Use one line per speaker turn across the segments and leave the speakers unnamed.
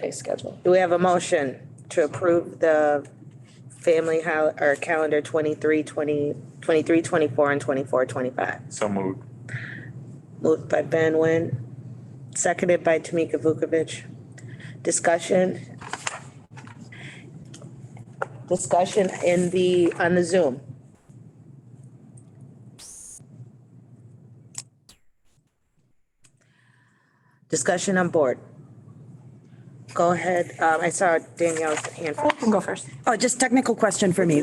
pay schedule.
Do we have a motion to approve the family hol- or calendar 23, 20 23, 24, and 24, 25?
So moved.
Moved by Ben Wen, seconded by Tamika Vukovic. Discussion. Discussion in the, on the Zoom. Discussion on board. Go ahead, um, I saw Danielle's hand.
I can go first.
Oh, just technical question for me.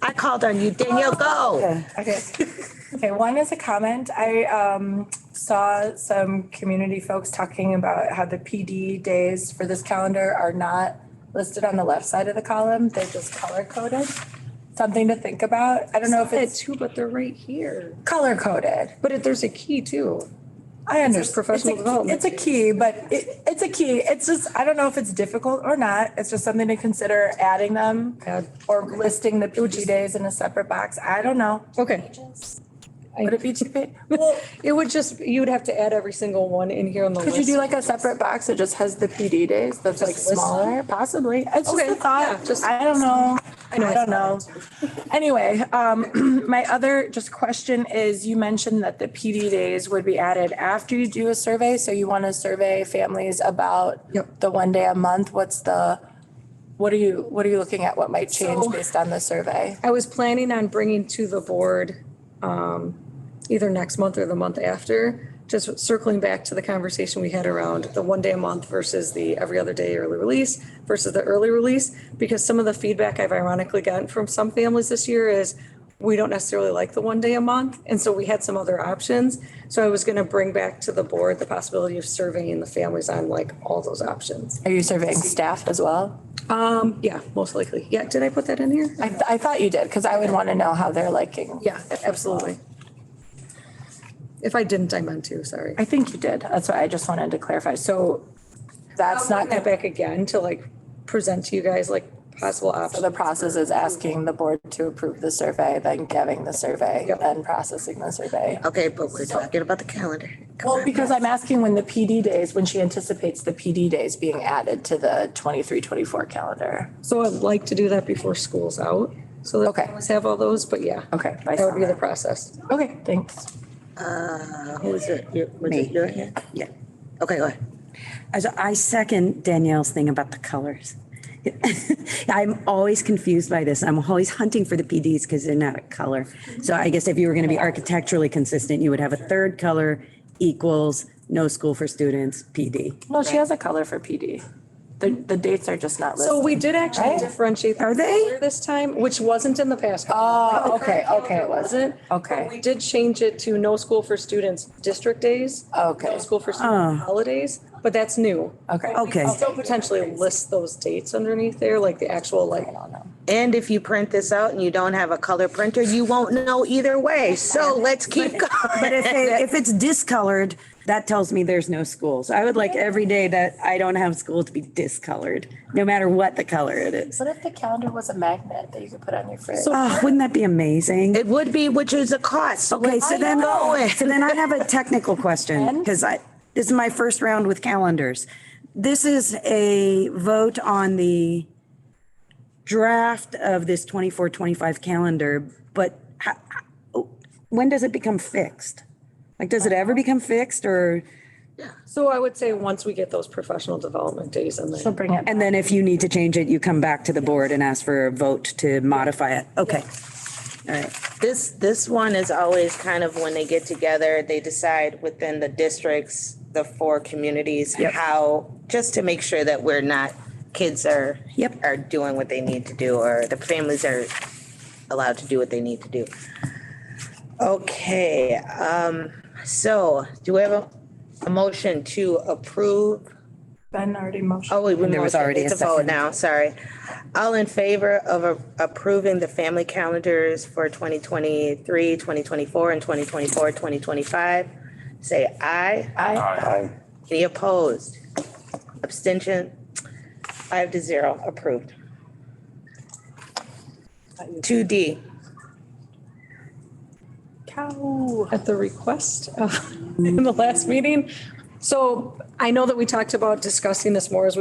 I called on you, Danielle, go.
Okay. Okay, one is a comment. I um saw some community folks talking about how the PD days for this calendar are not listed on the left side of the column. They're just color coded. Something to think about. I don't know if
It's
it's
two, but they're right here.
color coded.
But if there's a key too.
I understand.
professional development
It's a- It's a key, but it, it's a key. It's just, I don't know if it's difficult or not. It's just something to consider adding them
Add.
or listing the PD days in a separate box. I don't know.
Okay.
Would it be too big? Well,
It would just, you would have to add every single one in here on the list.
Could you do like a separate box that just has the PD days that's like
list
smaller, possibly? It's just
Okay,
a
yeah,
thought,
just-
just, I don't know. I
know,
don't know. Anyway, um, my other just question is, you mentioned that the PD days would be added after you do a survey, so you want to survey families about
Yep.
the one day a month, what's the, what are you, what are you looking at, what might change based on the survey?
I was planning on bringing to the board um, either next month or the month after, just circling back to the conversation we had around the one day a month versus the every other day early release versus the early release, because some of the feedback I've ironically gotten from some families this year is we don't necessarily like the one day a month, and so we had some other options. So I was going to bring back to the board the possibility of surveying the families on like all those options.
Are you surveying staff as well?
Um, yeah, most likely. Yeah, did I put that in here?
I, I thought you did, because I would want to know how they're liking.
Yeah, absolutely. If I didn't, I meant to, sorry.
I think you did. That's why I just wanted to clarify. So that's
I'll
not,
bring that back again to like present to you guys like possible
so
options.
the process is asking the board to approve the survey, then giving the survey,
Yep.
then processing the survey.
Okay, but we're talking about the calendar. Come
Well,
on.
because I'm asking when the PD days, when she anticipates the PD days being added to the 23-24 calendar.
So I'd like to do that before school's out. So that
Okay.
we always have all those, but yeah.
Okay, by
That would be the
summer.
process.
Okay, thanks.
Uh, Who is it? You- was it
Me.
your hand?
Yeah.
Okay, go ahead.
As I second Danielle's thing about the colors. I'm always confused by this. I'm always hunting for the PDs because they're not a color. So I guess if you were going to be architecturally consistent, you would have a third color equals no school for students, PD.
Well, she has a color for PD. The, the dates are just not
So
listed.
we did actually differentiate. the
Are they?
color This time, which wasn't in the past.
Oh, okay, okay, it wasn't.
But We
Oh, Okay,
did change it to no school for students district days. No
okay,
school for student holidays, but that's new.
okay.
Okay.
Still potentially list those dates underneath there, like the actual like.
I don't know.
And if you print this out and you don't have a color printer, you won't know either way. So let's keep
But
going.
if, they- if it's discolored, that tells me there's no school. So I would like every day that I don't have school to be discolored, no matter what the color it is.
What if the calendar was a magnet that you could put on your fridge?
Oh, wouldn't that be amazing?
It would be, which is a cost.
Okay, so then,
going.
so then I have a technical question, because I, this is my first round with calendars. This is a vote on the draft of this 24-25 calendar, but ho- ho- when does it become fixed? Like, does it ever become fixed or,
So I would say once we get those professional development days in
She'll
there.
bring it.
and then if you need to change it, you come back to the board and ask for a vote to modify it? Okay. All right.
This, this one is always kind of when they get together, they decide within the districts, the four communities, how, just to make sure that we're not, kids are,
Yep.
are doing what they need to do, or the families are allowed to do what they need to do. Okay, um, so do we have a, a motion to approve?
Ben already motioned.
Oh, wait, we
There was
motioned.
already a
It's vote
second.
now, sorry. All in favor of a- approving the family calendars for 2023, 2024, and 2024, 2025? Say aye.
Aye.
Aye.
Any opposed? Abstention? Five to zero, approved. 2D,
Cow.
At the request of, in the last meeting. So I know that we talked about discussing this more as we